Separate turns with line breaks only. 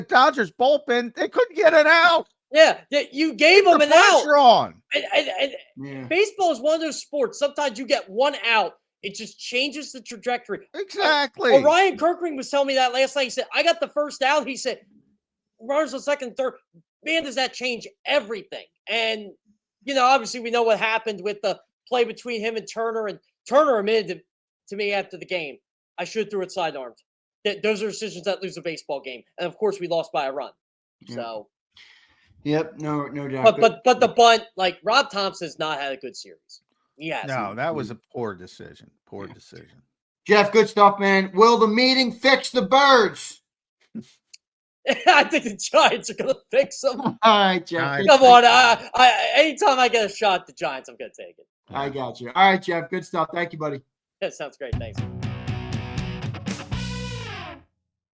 the Dodgers bullpen, they couldn't get an out.
Yeah, yeah, you gave them
The
an out.
pressure on.
And, and, and
Yeah.
baseball is one of those sports. Sometimes you get one out, it just changes the trajectory.
Exactly.
Well, Ryan Kirkring was telling me that last night. He said, I got the first out. He said, runners on second, third. Man, does that change everything? And, you know, obviously we know what happened with the play between him and Turner. And Turner admitted to, to me after the game, I should have threw it sidearmed. That those are decisions that lose a baseball game. And of course we lost by a run.
Yeah.
So
Yep. No. No doubt.
but but but the bunt, like Rob Thompson's not had a good series. Yes.
No, that was a poor decision. Poor
Yeah.
decision.
Jeff, good stuff, man. Will the meeting fix the birds?
I think the Giants are gonna fix them.
All right, Jeff.
Nice.
good
Come
stuff.
on, I, I anytime I get a shot at the Giants, I'm gonna take it.
I got you. All right, Jeff. Good stuff. Thank you, buddy.
That sounds great. Thanks.